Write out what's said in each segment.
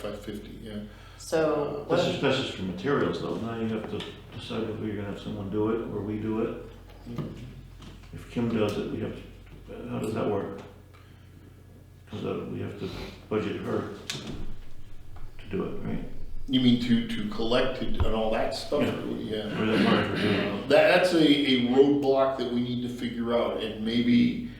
Five fifty, yeah. So This what, is, this is for materials though, now you have to decide whether you're gonna have someone do it or we do it. If Kim does it, we have, to. how does that work? Cause uh, we have to budget her to do it, right? You mean to, to collect it and all that stuff, yeah. Or is that part of her doing it? That, that's a, a roadblock that we need to figure out and maybe,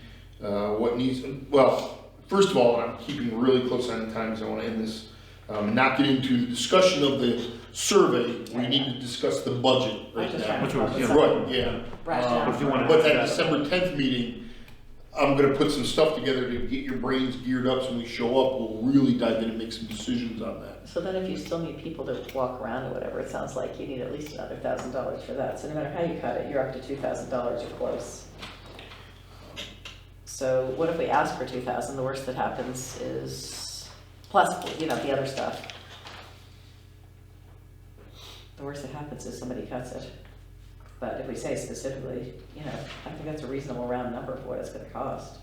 uh, what needs, well, first of all, and I'm keeping really close on the times, I wanna end this. Um, not get into the discussion of the survey, we need to discuss the budget right just now. trying Which one? Right, Yeah. yeah. rationale. If you wanna- But that December tenth meeting, I'm gonna put some stuff together to get your brains geared up, so when we show up, we'll really dive in and make some decisions on that. so then if you still need people to walk around or whatever, it sounds like you need at least another thousand dollars for that. So no matter how you cut it, you're up to two thousand dollars or close. So what if we ask for two thousand? The worst that happens is, plus, you know, the other stuff. The worst that happens is somebody cuts it. But if we say specifically, you know, I think that's a reasonable round number for what it's gonna cost.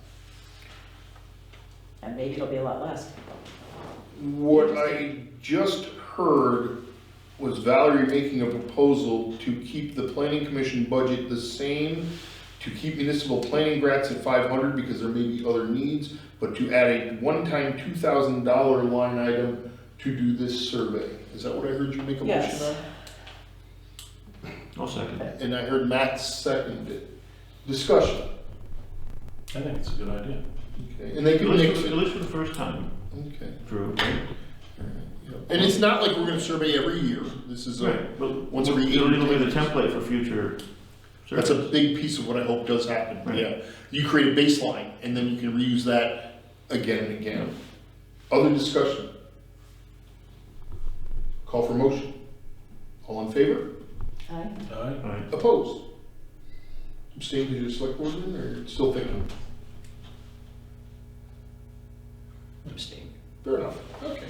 And maybe it'll be a lot less. What I just heard was Valerie making a proposal to keep the planning commission budget the same, to keep municipal planning grants at five hundred because there may be other needs, but to add a one-time two thousand dollar line item to do this survey. Is that what I heard you make a motion Yes. on? I'll second it. And I heard Matt second it. Discussion, I think it's a good idea. okay, and they At can make, least, at least for the first time, okay. Drew, right? And it's not like we're gonna survey every year, this is a, Right, but Once every it'll, eight- it'll be the template for future That's a surveys. big piece of what I hope does happen, Right. yeah. You create a baseline, and then you can reuse that again and again. Other discussion? Call for motion. All in favor? Aye. All right. All right. Opposed? Abstained, did you select board member, or still thinking? Abstain. Fair enough, okay.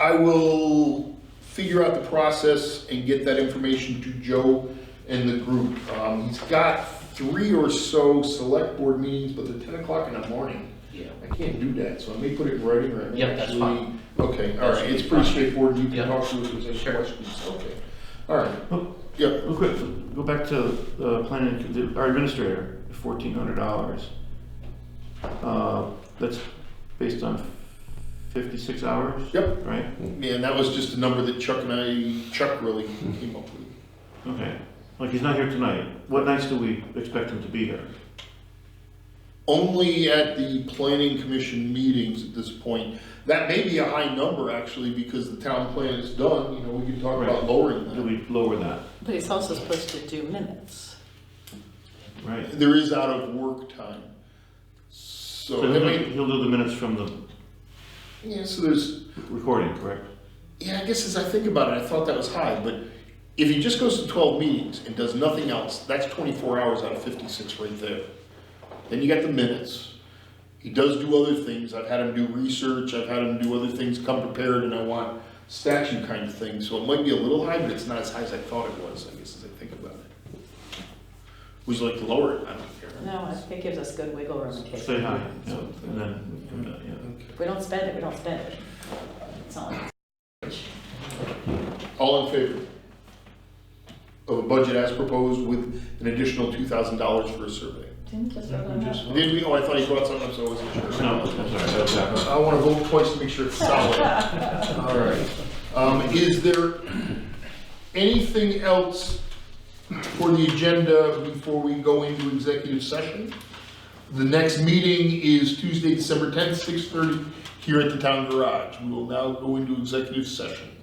I will figure out the process and get that information to Joe and the group. Um, he's got three or so select board meetings, but they're ten o'clock in the morning. Yeah. I can't do that, so I may put it in writing right now. Yep, that's fine. Okay, all right, it's pretty straightforward, you can Yeah. talk to us if there's Sure. any questions, okay. All right, Oh, yeah, Real quick, go back to the planning, the- our administrator, fourteen hundred dollars. Uh, That's based on fifty-six hours, yep, right? man, that was just a number that Chuck and I, Chuck really came up with. Okay, like he's not here tonight. What nights do we expect him to be here? only at the planning commission meetings at this point. That may be a high number actually, because the town plan is done, you know, we can talk about Right. Do lowering we lower that, But he's also supposed to do minutes. right? that. There is out of work time. So, So I he'll mean, do- he'll do the minutes from the yeah, so there's, recording, correct? yeah, I guess as I think about it, I thought that was high, but if he just goes to twelve meetings and does nothing else, that's twenty-four hours out of fifty-six right there. Then you got the minutes. He does do other things. I've had him do research. I've had him do other things, come prepared, and I want statue kind of thing. So it might be a little high, but it's not as high as I thought it was, I guess, as I think about it. Would you like to lower it? I don't care. No, I think it gives us good wiggle room in case. Say hi, yeah, and then we come down, yeah. If we don't spend it, we don't spend it. It's not like All in favor of a budget as proposed with an additional two thousand dollars for a survey? Didn't just vote on that. Did we? Oh, I thought you brought something, up, so I wasn't sure. No, I'm sorry, that was backwards. I want to vote twice to make sure it's solid. All right. Um, Is there anything else for the agenda before we go into executive session? The next meeting is Tuesday, December 10th, 6:30, here at the town garage. We will now go into executive session.